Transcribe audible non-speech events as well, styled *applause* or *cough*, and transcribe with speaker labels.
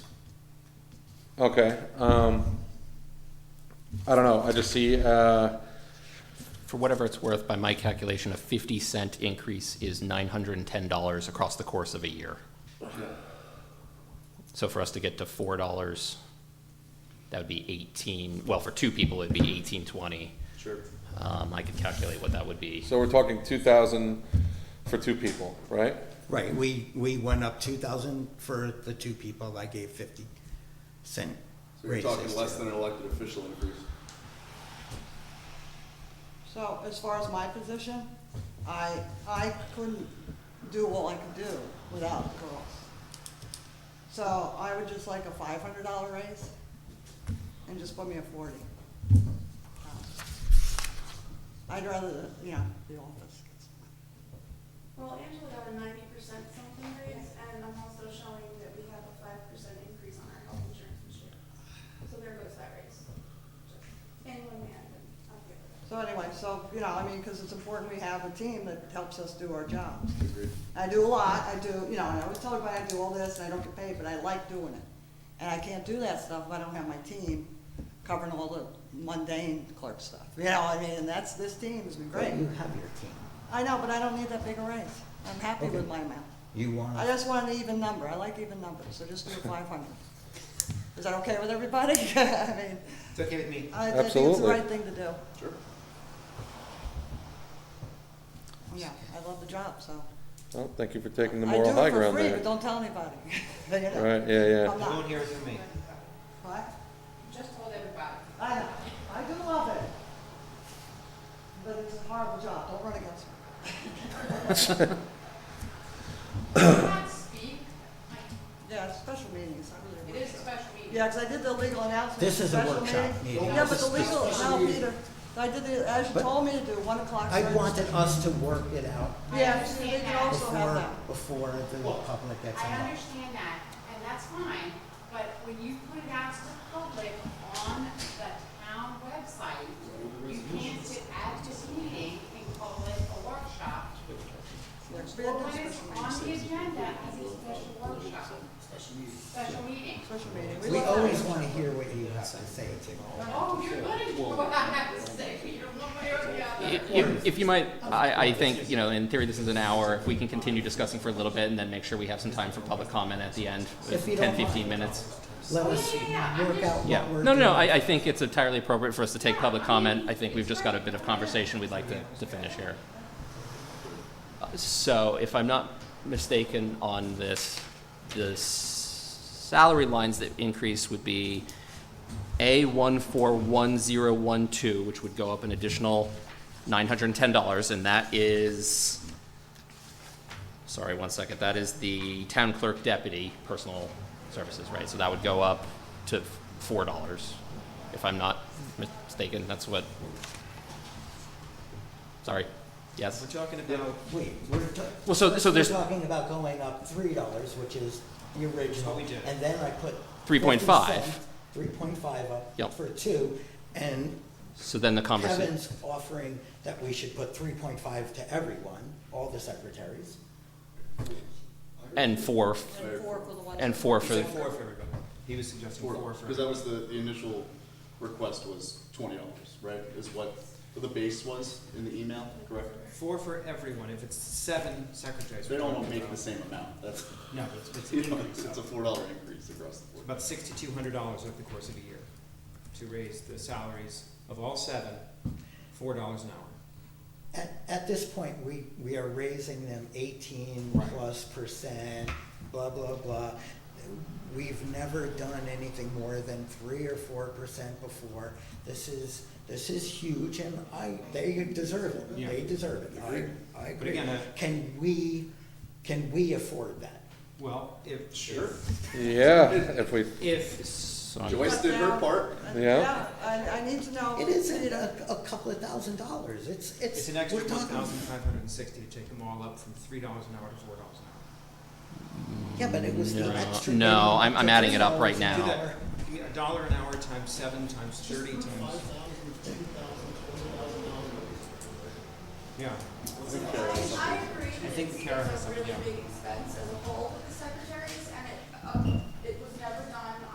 Speaker 1: Okay, um, I don't know, I just see, uh,
Speaker 2: For whatever it's worth, by my calculation, a 50 cent increase is $910 across the course of a year. So for us to get to $4, that would be 18, well, for two people, it'd be 1820.
Speaker 1: Sure.
Speaker 2: Um, I could calculate what that would be.
Speaker 1: so we're talking two thousand for two people, right?
Speaker 3: Right, we, we went up two thousand for the two people, I gave fifty cent
Speaker 4: So you're
Speaker 3: raises.
Speaker 4: talking less
Speaker 3: to-
Speaker 4: than an elected official increase.
Speaker 5: So as far as my position, I, I couldn't do what I could do without the girls. So I would just like a five hundred dollar raise and just put me at forty. Um, I'd rather, you know, the office.
Speaker 6: Well, Angela got a ninety percent something raise, and I'm also showing that we have a five percent increase on our health insurance this year. So there goes that raise. And one man, I'm good with that.
Speaker 5: So anyway, so, you know, I mean, because it's important we have a team that helps us do our jobs.
Speaker 4: Agreed.
Speaker 5: I do a lot, I do, you know, and I always tell everybody I do all this and I don't get paid, but I like doing it. And I can't do that stuff if I don't have my team covering all the mundane clerk stuff, you know, I mean, and that's, this team's been
Speaker 3: Right,
Speaker 5: great.
Speaker 3: you have your team.
Speaker 5: I know, but I don't need that big a raise, I'm happy with
Speaker 3: Okay.
Speaker 5: my amount.
Speaker 3: You
Speaker 5: I
Speaker 3: want,
Speaker 5: just want an even number, I like even numbers, so just do five hundred. Is that okay with everybody? *laughs* I mean,
Speaker 7: It's okay with me.
Speaker 5: I I think it's the
Speaker 1: Absolutely.
Speaker 5: right thing to do,
Speaker 4: Sure.
Speaker 5: yeah, I love the job, so.
Speaker 1: Well, thank you for taking the moral high ground
Speaker 5: I do it for free,
Speaker 1: there.
Speaker 5: but don't tell anybody, *laughs* you know.
Speaker 1: Right, yeah, yeah.
Speaker 5: I'm
Speaker 7: No one
Speaker 5: not,
Speaker 7: here is with me.
Speaker 5: what?
Speaker 6: Just told everybody.
Speaker 5: I know, I do love it. But it's a horrible job, don't run against me.
Speaker 8: Not speak, like,
Speaker 5: Yeah, it's special meetings, I really
Speaker 8: it is a
Speaker 5: appreciate
Speaker 8: special meeting.
Speaker 5: Yeah, because I did the legal announcement.
Speaker 3: This is a
Speaker 5: special
Speaker 3: workshop meeting.
Speaker 5: Yeah, but the
Speaker 3: This is-
Speaker 5: legal, no, Peter, I did the, as you
Speaker 3: But-
Speaker 5: told me to do, one o'clock.
Speaker 3: I
Speaker 5: starts.
Speaker 3: wanted us to work it out
Speaker 5: Yeah, so they
Speaker 8: understand
Speaker 5: can
Speaker 8: that.
Speaker 5: also have
Speaker 3: before,
Speaker 5: that.
Speaker 3: before the public gets
Speaker 8: I
Speaker 3: involved.
Speaker 8: understand that, and that's fine, but when you put it out to the public on the town website, you can't sit at this meeting and call it a workshop.
Speaker 5: There's
Speaker 8: Well,
Speaker 5: been a
Speaker 8: when it's
Speaker 5: special
Speaker 8: on
Speaker 5: meeting.
Speaker 8: the agenda as a special workshop, special meeting.
Speaker 5: Special meeting.
Speaker 3: We
Speaker 5: love that.
Speaker 3: always want to hear what you have to say too.
Speaker 8: Oh, you're gonna do *laughs* what I have to say, you're one way or the other.
Speaker 2: If- If, if you might, I, I think, you know, in theory, this is an hour. If we can continue discussing for a little bit and then make sure we have some time for public comment at the end,
Speaker 3: If you
Speaker 2: 10,
Speaker 3: don't mind.
Speaker 2: 15 minutes.
Speaker 3: Let us
Speaker 8: Yeah, yeah, yeah, I'm
Speaker 3: work
Speaker 8: just-
Speaker 3: out what we're
Speaker 2: Yeah,
Speaker 3: doing.
Speaker 2: no, no, no, I, I think it's entirely appropriate for us to take public comment. I think we've just got a bit of conversation we'd like to, to finish here. Uh, So if I'm not mistaken on this, the s- salary lines that increase would be A one four one zero one two, which would go up an additional nine hundred and ten dollars, and that is, sorry, one second, that is the town clerk deputy personal services, right? So that would go up to four dollars, if I'm not mistaken, that's what, sorry, yes?
Speaker 7: We're talking about,
Speaker 3: Wait, we're ta-
Speaker 2: Well, so-
Speaker 3: first
Speaker 2: so there's-
Speaker 3: We're talking about going up three dollars, which is the original.
Speaker 7: What Oh, we did.
Speaker 3: And then I put.
Speaker 2: 3.5.
Speaker 3: Three point five up
Speaker 2: Yep.
Speaker 3: for two, and
Speaker 2: So then the conversation,
Speaker 3: Kevin's offering that we should put three point five to everyone, all the secretaries.
Speaker 2: and four,
Speaker 5: And four for the one.
Speaker 2: and four
Speaker 7: he
Speaker 2: for,
Speaker 7: said
Speaker 2: the
Speaker 7: four for everybody. He was suggesting four for
Speaker 4: Because that
Speaker 7: everybody.
Speaker 4: was the, the initial request was twenty dollars, right? Is what the base was in the email, correct?
Speaker 7: Four for everyone. If it's seven secretaries.
Speaker 4: They
Speaker 7: we're
Speaker 4: don't
Speaker 7: talking
Speaker 4: all make the
Speaker 7: about-
Speaker 4: same amount, that's, *laughs*
Speaker 7: No, it's, it's
Speaker 4: you know,
Speaker 7: increased
Speaker 4: it's a
Speaker 7: up.
Speaker 4: four dollar increase across the board.
Speaker 7: about sixty-two hundred dollars over the course of a year to raise the salaries of all seven, four dollars an hour.
Speaker 3: At, at this point, we, we are raising them eighteen
Speaker 7: Right.
Speaker 3: plus percent, blah, blah, blah. We've never done anything more than three or four percent before. This is, this is huge and I, they deserve it.
Speaker 7: Yeah.
Speaker 3: They deserve it. I, I
Speaker 7: But
Speaker 3: agree.
Speaker 7: again, uh,
Speaker 3: Can we, can we afford that?
Speaker 7: Well, if.
Speaker 4: Sure.
Speaker 1: Yeah, if we,
Speaker 7: If,
Speaker 2: so I'm-
Speaker 4: Joyce did her part.
Speaker 5: And-
Speaker 1: Yeah.
Speaker 5: Yeah, I, I need to know.
Speaker 3: It isn't a, a couple of thousand dollars. It's, it's.
Speaker 7: it's an extra
Speaker 3: we're
Speaker 7: one
Speaker 3: talking-
Speaker 7: thousand five hundred and sixty to take them all up from three dollars an hour to four dollars an hour.
Speaker 3: Yeah, but it was
Speaker 2: No,
Speaker 3: the extra.
Speaker 2: no,
Speaker 3: minimum
Speaker 2: I'm- I'm adding it up right
Speaker 3: $15
Speaker 7: Do
Speaker 2: Now-
Speaker 7: that, give me a dollar an hour times seven times thirty times. Yeah,
Speaker 6: I, I agree
Speaker 7: I
Speaker 6: that
Speaker 7: think
Speaker 6: it's
Speaker 7: Kara has
Speaker 6: it's a
Speaker 7: something,
Speaker 6: really
Speaker 7: yeah.
Speaker 6: big expense as a whole, uh,